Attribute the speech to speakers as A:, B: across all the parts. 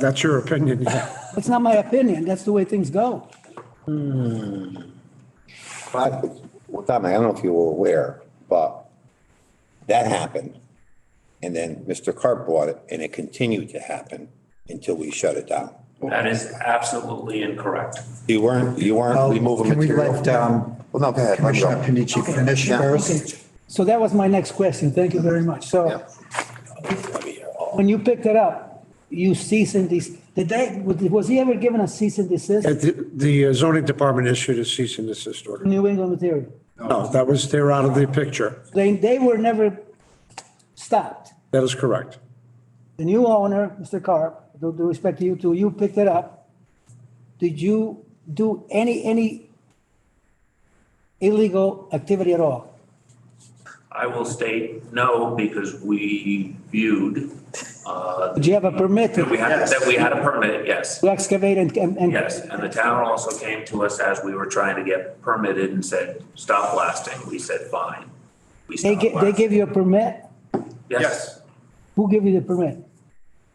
A: That's your opinion, yeah.
B: That's not my opinion. That's the way things go.
C: But, well, Tom, I don't know if you were aware, but that happened. And then Mr. Carp bought it and it continued to happen until we shut it down.
D: That is absolutely incorrect.
C: You weren't, you weren't removing
E: Oh, Can we
C: material.
E: let um,
C: Well, no, go ahead. I'm
E: Commissioner
C: sorry.
E: Panici finish
C: Yeah.
E: first?
B: So that was my next question. Thank you very much. So
C: Yeah.
B: when you picked it up, you cease and desist. Did they, was he ever given a cease and desist?
A: And The the uh, zoning department issued a cease and desist order.
B: New England material.
A: No, that was, they're out of the picture.
B: They, they were never stopped.
A: That is correct.
B: The new owner, Mr. Carp, with due respect to you two, you picked it up. Did you do any, any illegal activity at all?
D: I will state no because we viewed, uh,
B: Did you have a permit
D: that we
B: to
D: had, that we had a permit, yes.
B: to excavate and, and? and-
D: Yes, and the town also came to us as we were trying to get permitted and said, stop blasting. We said, fine. We
B: They,
D: stopped
B: gi- they
D: blasting.
B: give you a permit?
D: Yes,
B: Who gave you the permit?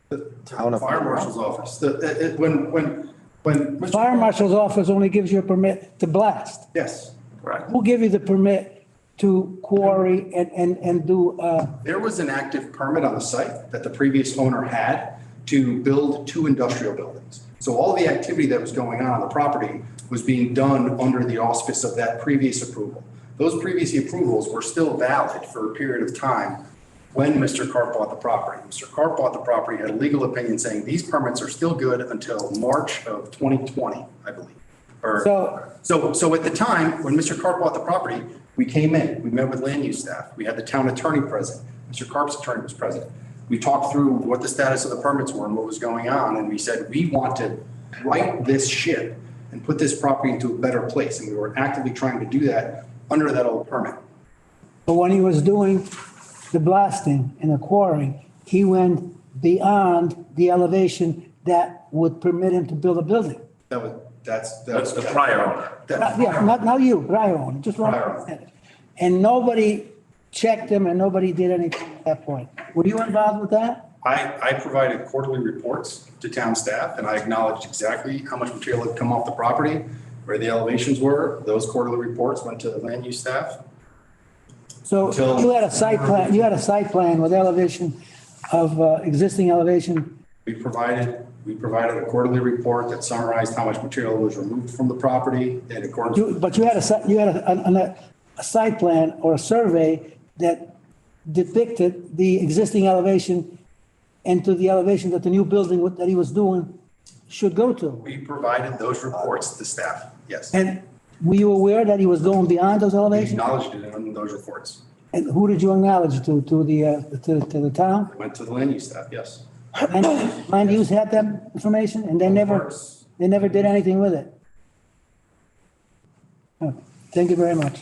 F: The town fire marshal's office, the, it, it- when, when, when. Mr.
B: Fire marshal's office only gives you a permit to blast.
F: Yes,
D: correct.
B: Who gave you the permit to quarry and, and, and do, uh,
F: there was an active permit on the site that the previous owner had to build two industrial buildings. So all the activity that was going on on the property was being done under the auspice of that previous approval. Those previous approvals were still valid for a period of time when Mr. Carp bought the property. Mr. Carp bought the property, had a legal opinion saying these permits are still good until March of 2020, I believe. Or-
B: So-
F: So, so at the time, when Mr. Carp bought the property, we came in, we met with land use staff, we had the town attorney present, Mr. Carp's attorney was present. We talked through what the status of the permits were and what was going on, and we said, we want to right this ship and put this property into a better place, and we were actively trying to do that under that old permit.
B: But when he was doing the blasting and the quarrying, he went beyond the elevation that would permit him to build a building.
F: That was, that's. that
D: That's
F: was-
D: the prior owner.
F: that-
B: Not- Yeah, not, not you, Ryan, just Ryan. And nobody checked him and nobody did anything at that point. Were you involved with that?
F: I, I provided quarterly reports to town staff, and I acknowledged exactly how much material had come off the property, where the elevations were. Those quarterly reports went to the land use staff.
B: So
F: Until-
B: you had a site plan, you had a site plan with elevation of uh, existing elevation
F: We provided, we provided a quarterly report that summarized how much material was removed from the property in accordance.
B: You, but you had a, si- you had a, an- an- a site plan or a survey that depicted the existing elevation and to the elevation that the new building would- that he was doing should go to.
F: We provided those reports to staff, yes.
B: And were you aware that he was going beyond those
F: We
B: elevations?
F: Acknowledged it in those reports.
B: And who did you acknowledge to, to the, uh, to, to the town?
F: Went to the land use staff, yes.
B: And land use had that information and they never,
F: course.
B: they never did anything with it? Oh, Thank you very much.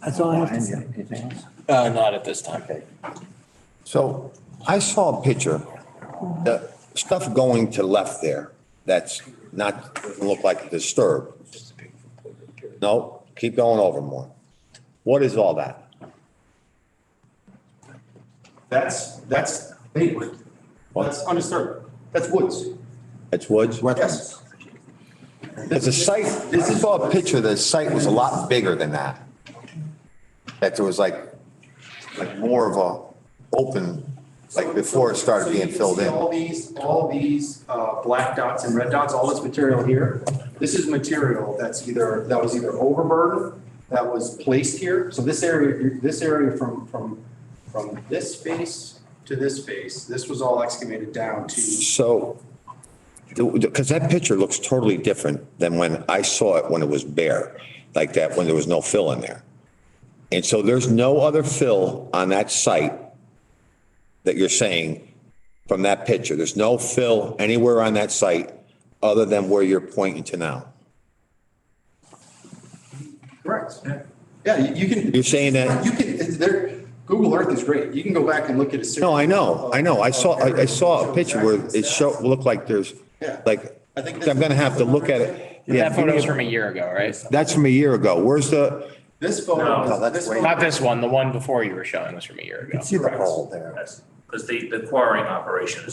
B: That's all I have to say.
E: Anything else?
G: Uh, not at this time.
C: So I saw a picture, the stuff going to left there, that's not, doesn't look like disturbed. No, keep going over more. What is all that?
F: That's, that's, they would, that's undisturbed. That's woods.
C: It's woods?
F: Yes.
C: There's a site, this is all a picture, the site was a lot bigger than that. That there was like, like more of a open, like before it started
F: So you
C: being
F: can
C: filled
F: see
C: in.
F: All these, all these uh, black dots and red dots, all this material here, this is material that's either, that was either overburden, that was placed here. So this area, this area from, from, from this face to this face, this was all excavated down to.
C: So, because that picture looks totally different than when I saw it when it was bare, like that, when there was no fill in there. And so there's no other fill on that site that you're saying from that picture. There's no fill anywhere on that site other than where you're pointing to now.
F: Correct. Yeah, you you can.
C: You're saying that-
F: You can, there, Google Earth is great. You can go back and look at a. series
C: No, I know,
F: of-
C: I know. I saw, I I saw a
F: of
C: picture where
F: exact
C: it show, looked like there's,
F: Yeah.
C: like,
F: I
C: I'm
F: think this-
C: gonna have to look at it. Yeah,
G: That photo's from a year ago, right?
C: That's from a year ago. Where's the,
F: This photo.
D: No,
F: is-
C: that's way-
F: photo-
G: Not this one, the one before you were showing was from a year ago.
E: See the hole there.
D: Because the, the quarrying operation is